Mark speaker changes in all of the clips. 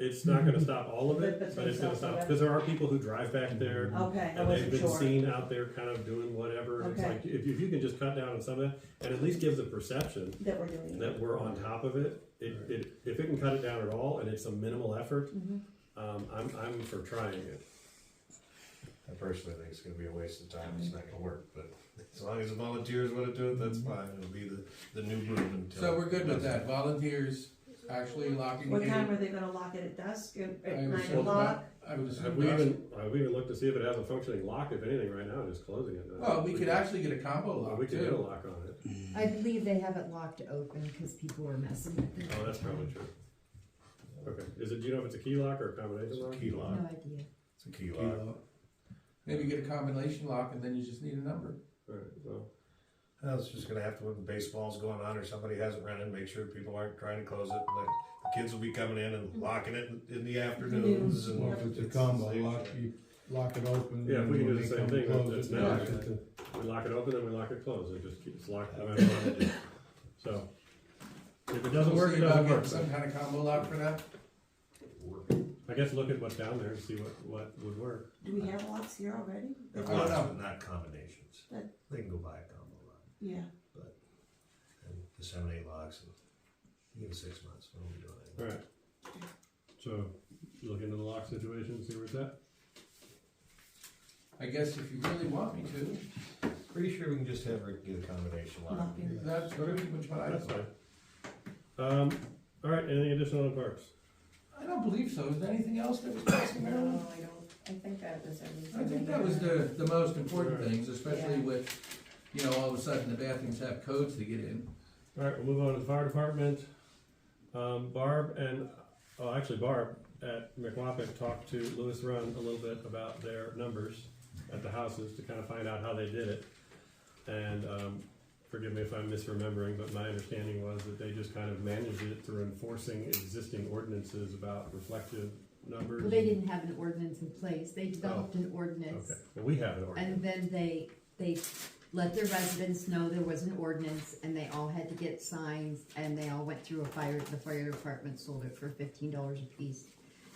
Speaker 1: It's not gonna stop all of
Speaker 2: But
Speaker 1: it,
Speaker 2: it's
Speaker 1: but it's
Speaker 2: gonna
Speaker 1: gonna
Speaker 2: stop
Speaker 1: stop,
Speaker 2: it.
Speaker 1: because there are people who drive back there.
Speaker 2: Okay, I
Speaker 1: And they've
Speaker 2: wasn't
Speaker 1: been
Speaker 2: sure.
Speaker 1: seen out there kind of doing whatever, and it's
Speaker 2: Okay.
Speaker 1: like, if you, if you can just cut down on some of that, and at least give the perception
Speaker 2: That we're doing it.
Speaker 1: that we're on top of it, it, it, if it can cut it down at all, and it's a minimal effort,
Speaker 2: Mhm.
Speaker 1: um, I'm, I'm for trying it.
Speaker 3: I personally think it's gonna be a waste of time, it's not gonna work, but as long as the volunteers wanna do it, that's fine, it'll be the, the new movement. until-
Speaker 4: So we're good with that, volunteers actually locking
Speaker 2: What
Speaker 4: in.
Speaker 2: time are they gonna lock it at dusk, at
Speaker 4: I
Speaker 2: at
Speaker 4: would
Speaker 2: nine
Speaker 4: assume
Speaker 2: o'clock?
Speaker 4: that- I would
Speaker 1: Have
Speaker 4: assume
Speaker 1: we
Speaker 4: that's-
Speaker 1: even, have we even looked to see if it has a functioning lock, if anything, right now, just closing it?
Speaker 4: well, we could actually get a combo
Speaker 1: Well,
Speaker 4: lock
Speaker 1: We could get a
Speaker 4: too.
Speaker 1: lock on it,
Speaker 5: I believe they have it locked open because people were messing with it.
Speaker 1: oh, that's probably true. Okay, is it, do you know if it's a key lock or a
Speaker 3: It's
Speaker 1: combination
Speaker 3: a
Speaker 1: lock?
Speaker 3: key
Speaker 5: No
Speaker 3: lock,
Speaker 5: idea.
Speaker 3: it's a key lock.
Speaker 4: Uh, Maybe get a combination lock and then you just need a number.
Speaker 1: Alright, well,
Speaker 3: I was just gonna have to, when the baseball's going on or somebody hasn't run in, make sure people aren't trying to close it, like, the kids will be coming in and locking it in- in the afternoons and.
Speaker 6: Well, if it's a combo, lock, you lock it open.
Speaker 1: Yeah, if we can
Speaker 6: and
Speaker 1: do the same
Speaker 6: when they
Speaker 1: thing,
Speaker 6: come
Speaker 1: that's-
Speaker 6: close it,
Speaker 4: that's
Speaker 6: lock
Speaker 3: now.
Speaker 6: it to-
Speaker 1: we lock it open, then we lock it closed, it just keeps locked no matter what we do. So, if it doesn't
Speaker 4: We'll
Speaker 1: work,
Speaker 4: see
Speaker 1: it
Speaker 4: about
Speaker 1: doesn't
Speaker 4: getting
Speaker 1: work.
Speaker 4: Some kind of combo lock for that?
Speaker 1: I guess look at what's down there and see what, what would work.
Speaker 2: Do we have locks here already?
Speaker 3: If
Speaker 4: I don't
Speaker 3: lots,
Speaker 4: know.
Speaker 3: but not combinations,
Speaker 2: But-
Speaker 3: they can go buy a combo lock
Speaker 2: Yeah,
Speaker 3: and disseminate locks and give it six months, we won't be doing anything.
Speaker 1: Alright. So, look into the lock situation, see where it's at?
Speaker 4: I guess if you really want me to,
Speaker 3: Pretty sure we can just have Rick get a combination lock.
Speaker 4: Uh-huh.
Speaker 2: Lock it.
Speaker 4: that's pretty much what I,
Speaker 1: That's fine. Um, alright, anything additional on parks?
Speaker 4: I don't believe so. Is there anything else that was passing around?
Speaker 7: No, I don't, I think that was everything.
Speaker 4: I think that was the, the most important things, especially with, you know, all of a sudden the bathrooms have codes to get in.
Speaker 1: Alright, we'll move on to the fire department. Um, Barb and, oh, actually Barb at McWapic talked to Lewis Run a little bit about their numbers at the houses to kind of find out how they did it. And, um, forgive me if I'm misremembering, but my understanding was that they just kind of managed it through enforcing existing ordinances about reflective numbers.
Speaker 5: Well, they didn't have an ordinance in place. They developed an ordinance.
Speaker 1: Oh, Okay, well, we have an ordinance.
Speaker 5: And then they, they let their residents know there was an ordinance and they all had to get signs and they all went through a fire, the fire department sold it for fifteen dollars a piece.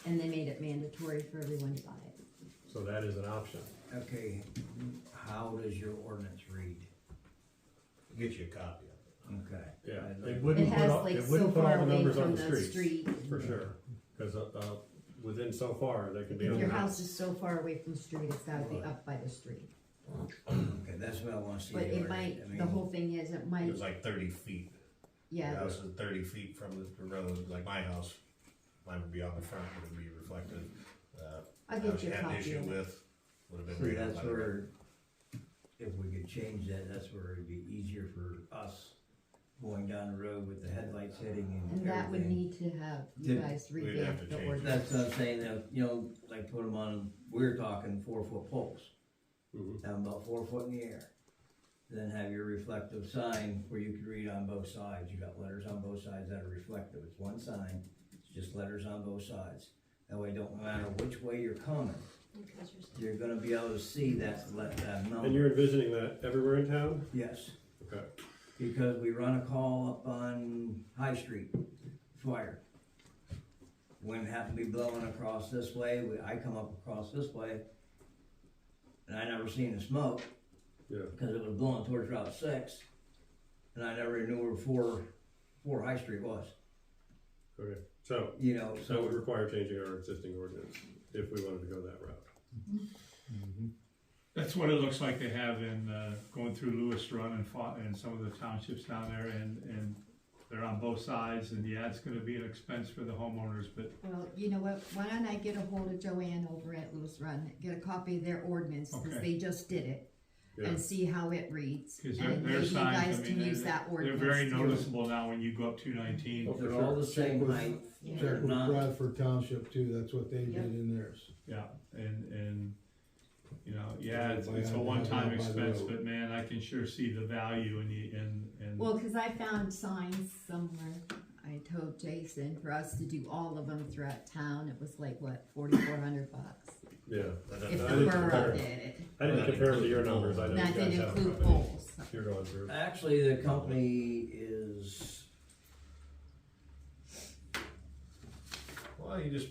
Speaker 5: And they made it mandatory for everyone to buy it.
Speaker 1: So that is an option.
Speaker 8: Okay, how does your ordinance read?
Speaker 3: Get you a copy of
Speaker 8: Okay.
Speaker 1: Yeah,
Speaker 8: I'd like-
Speaker 1: it
Speaker 5: It
Speaker 1: wouldn't put
Speaker 5: has
Speaker 1: all,
Speaker 5: like
Speaker 1: it
Speaker 5: so
Speaker 1: wouldn't put
Speaker 5: far
Speaker 1: all the
Speaker 5: away
Speaker 1: numbers on
Speaker 5: from
Speaker 1: the
Speaker 5: the
Speaker 1: street,
Speaker 5: street.
Speaker 1: for sure, cause, uh, uh, within so far, they can be
Speaker 5: If
Speaker 1: on
Speaker 5: your
Speaker 1: the
Speaker 5: house is so far away from the street, it's gotta be up by the street.
Speaker 8: Okay, that's what I wanna see.
Speaker 5: But it
Speaker 8: ordered. I
Speaker 5: might, the
Speaker 8: mean,
Speaker 5: whole thing is, it
Speaker 3: it. It
Speaker 5: might,
Speaker 3: was like thirty feet. The
Speaker 5: yeah,
Speaker 3: house was thirty feet from the- the road, like my house, mine would be on the front, it would be reflective. Uh,
Speaker 5: I'll
Speaker 3: I
Speaker 5: get you a
Speaker 3: had an
Speaker 5: copy
Speaker 3: issue
Speaker 5: of it.
Speaker 3: with, would have been
Speaker 8: See,
Speaker 3: right out
Speaker 8: that's
Speaker 3: by the road.
Speaker 8: where, if we could change that, that's where it'd be easier for us going down the road with the headlights hitting
Speaker 5: And
Speaker 8: and
Speaker 5: that would
Speaker 8: everything.
Speaker 5: need to have you
Speaker 8: Did-
Speaker 5: guys
Speaker 3: we'd have to
Speaker 5: revamp
Speaker 3: change
Speaker 5: the
Speaker 3: it.
Speaker 5: ordinance.
Speaker 8: That's what I'm saying, that, you know, like put them on, we're talking four foot poles,
Speaker 1: Mhm.
Speaker 8: have 'em about four foot in the air. Then have your reflective sign where you can read on both sides, you got letters on both sides that are reflective, it's one sign, it's just letters on both sides. That way, don't matter which way you're coming, you're gonna be able to see that, let that
Speaker 1: And
Speaker 8: number,
Speaker 1: you're envisioning that everywhere in town?
Speaker 8: yes.
Speaker 1: Okay.
Speaker 8: Because we run a call up on High Street, fire. Wind happened to be blowing across this way, we, I come up across this way, and I never seen the smoke.
Speaker 1: Yeah.
Speaker 8: Because it was blowing towards Route Six, and I never knew where four, four High Street was,
Speaker 1: Okay, so,
Speaker 8: you know,
Speaker 1: so it would
Speaker 8: so,
Speaker 1: require changing our existing ordinance if we wanted to go that route.
Speaker 9: That's what it looks like they have in, uh, going through Lewis Run and fought, and some of the townships down there, and, and they're on both sides, and yeah, it's gonna be an expense for the homeowners, but
Speaker 5: Well, you know what, why don't I get a hold of Joanne over at Lewis Run, get a copy of their ordinance, cause
Speaker 9: Okay.
Speaker 5: they just did it,
Speaker 1: Yeah.
Speaker 5: and see how it reads.
Speaker 9: is their,
Speaker 5: And
Speaker 9: their
Speaker 5: maybe you
Speaker 9: signs, I
Speaker 5: guys
Speaker 9: mean,
Speaker 5: can use
Speaker 9: they're,
Speaker 5: that
Speaker 9: they're
Speaker 5: ordinance
Speaker 9: very
Speaker 5: too.
Speaker 9: noticeable now when you go up two nineteen.
Speaker 8: they're all the same height,
Speaker 5: Yeah.
Speaker 6: Check with
Speaker 8: Not-
Speaker 6: Bradford Township too, that's what they did
Speaker 7: Yep.
Speaker 6: in theirs.
Speaker 9: Yeah, and, and, you know, yeah, it's,
Speaker 6: By
Speaker 9: it's a
Speaker 6: hand,
Speaker 9: one-time
Speaker 6: by the
Speaker 9: expense,
Speaker 6: road.
Speaker 9: but man, I can sure see the value in the, in, in.
Speaker 5: Well, cause I found signs somewhere, I told Jason, for us to do all of them throughout town, it was like, what, forty-four hundred bucks?
Speaker 1: Yeah,
Speaker 3: That
Speaker 5: If
Speaker 3: doesn't-
Speaker 1: I
Speaker 5: the
Speaker 1: didn't
Speaker 5: borough
Speaker 1: compare.
Speaker 5: did it,
Speaker 1: I didn't compare it to your numbers, I know
Speaker 5: that
Speaker 1: you guys
Speaker 5: didn't
Speaker 1: have.
Speaker 5: include
Speaker 1: company
Speaker 5: polls.
Speaker 1: You're going through.
Speaker 8: actually, the company is
Speaker 3: Well, you just